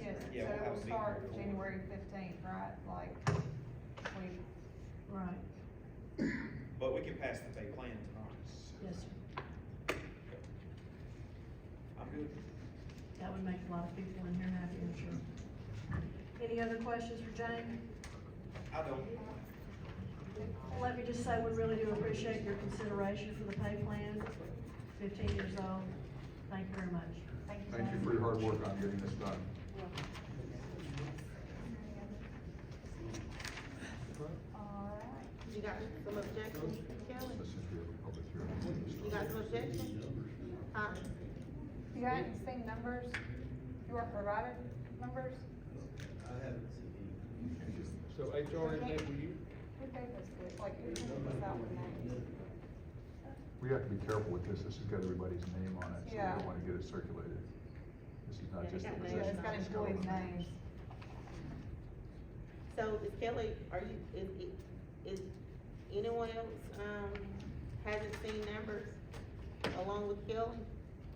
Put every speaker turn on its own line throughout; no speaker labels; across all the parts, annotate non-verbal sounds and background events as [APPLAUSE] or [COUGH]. Yes, so
Yeah, we'll
it
have a
will
meeting
start
before.
January fifteenth, right, like, we,
Right,
But we can pass the pay plan tonight.
yes, sir.
I'm good.
That would make a lot of people in here happy, I'm sure. Any other questions for Jane?
I don't,
Well, Let me just say, we really do appreciate your consideration for the pay plan, fifteen years old. Thank you very much.
thank you.
Thank you
Sam.
for your hard work on getting this done.
All right.
You got some objections, Kelly?
This is your public hearing.
You got some objections? Huh?
You hadn't seen numbers? You were provided numbers?
So HR is that for you?
Who gave us this? Like, who sent this out with names?
We have to be careful with this, this has got everybody's name on it, so we
Yeah.
don't wanna get it circulated. This is not
Yeah,
just the
it got
Yeah,
position.
it's got
it's got
employees'
all the
names.
So is Kelly, are you, is, is anyone else, um, hasn't seen numbers along with Kelly?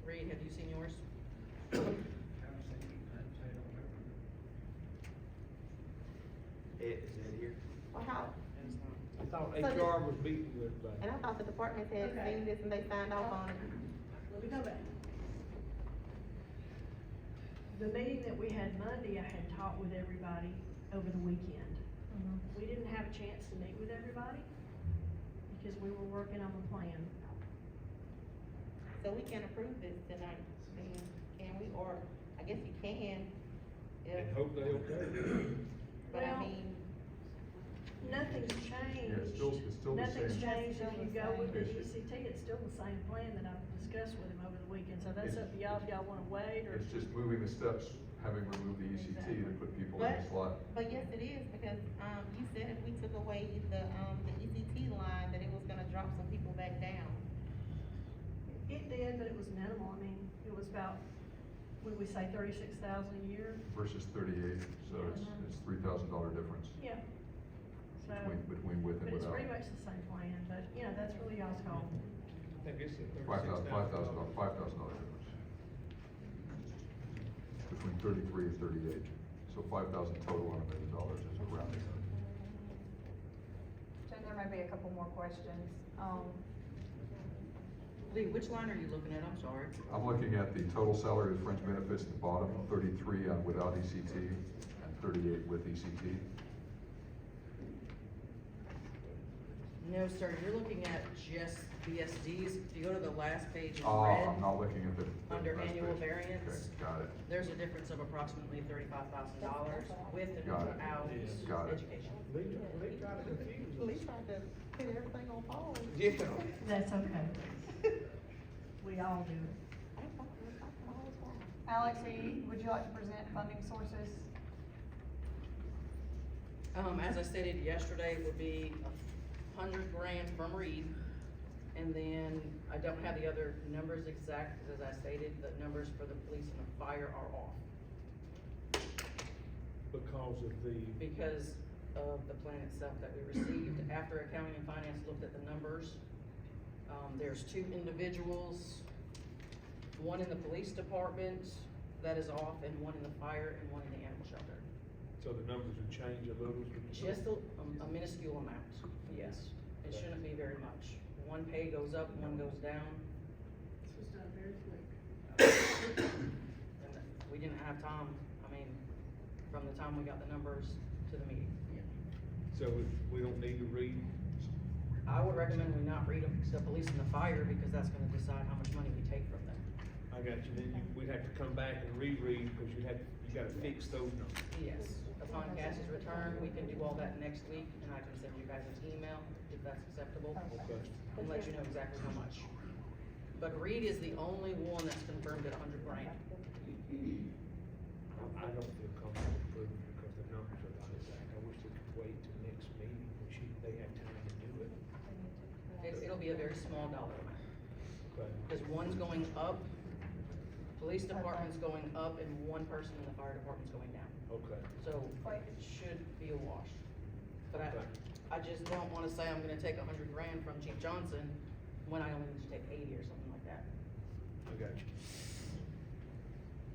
Reed, have you seen yours?
Ed, is Ed here?
Well, how,
I thought
So the-
HR was beating with
and
everybody.
I thought the departments had
Okay.
seen this and they signed off on it.
Let me go back. The meeting that we had Monday, I had talked with everybody over the weekend.
Mm-hmm.
Mhm.
We didn't have a chance to meet with everybody because we were working on the plan.
So we can approve this tonight, then, can we, or, I guess you can, if,
And hope they okay.
but I
Well-
mean,
Nothing's changed.
it's still- it's still the
Nothing's
same.
changed. If you go with the
It's-
ECT, it's still the same plan that I've discussed with him over the weekend, so that's
It's-
up to y'all if y'all wanna wait or.
It's just moving the steps, having removed the ECT to put people in
But-
the slot.
But yes, it is, because, um, you said if we took away the, um, the ECT line, that it was gonna drop some people back down.
It did, but it was minimal. I mean, it was about, would we say thirty-six thousand a year?
Versus thirty-eight, so it's,
Mhm.
it's three thousand dollar difference
Yeah. So,
between, between with
but
and
it's
without.
pretty much the same plan, but, you know, that's really y'all's call.
Mm-hmm.
I think it's a
Five thousand,
thirty-six
five
thousand
thousand,
dollars.
five thousand dollar difference. Between thirty-three and thirty-eight, so five thousand total on a million dollars is a rounding.
Jen, there may be a couple more questions. Um,
Lee, which line are you looking at? I'm sorry.
I'm looking at the total salary with fringe benefits at the bottom, thirty-three on without ECT and thirty-eight with E ECT.
No, sir, you're looking at just BSDs. If you go to the last page in
Ah, I'm
red,
not looking at the. the
Under
last
annual
page.
variance.
Okay, Got it.
there's a difference of approximately thirty-five thousand dollars with and
Got it.
without
Yeah.
Got it.
education.
They, they try to confuse us.
Lee tried to put everything on pause. [LAUGHS]
Yeah.
That's okay. We all do it.
I thought- I thought I was wrong.
Alex, are you, would you like to present funding sources?
Um, as I stated yesterday, would be a hundred grand from Reed. And then I don't have the other numbers exact, 'cause as I stated, the numbers for the police and the fire are off
Because of the,
because of the plan itself that we received. After accounting and finance looked at the numbers, um, there's two individuals, one in the police department that is off and one in the fire and one in the animal shelter.
so the numbers would change a little.
Just a um, a minuscule amount, yes. It shouldn't be very much. One pay goes up, one goes down,
This was done very quick.
and we didn't have time, I mean, from the time we got the numbers to the meeting.
So if we don't need to read,
I would recommend we not read them to the police and the fire, because that's gonna decide how much money we take from them.
I got you, then you- we'd have to come back and reread, because you had, you gotta fix those numbers.
Yes, upon Cass's return, we can do all that next week, and I can send you guys an email, if that's acceptable,
Okay.
and let you know exactly how much. But Reed is the only one that's confirmed at a hundred grand.
I don't feel comfortable approving it because the numbers are not exact. I wish they could wait till next meeting, and she, they have time to do it.
It, it'll be a very small dollar amount,
But
because one's going up, police department's going up, and one person in the fire department's going down.
Okay,
So it should be a wash. But I, I just don't wanna say I'm gonna take a hundred grand from Chief Johnson when I only need to take eighty or something like that.
I got you.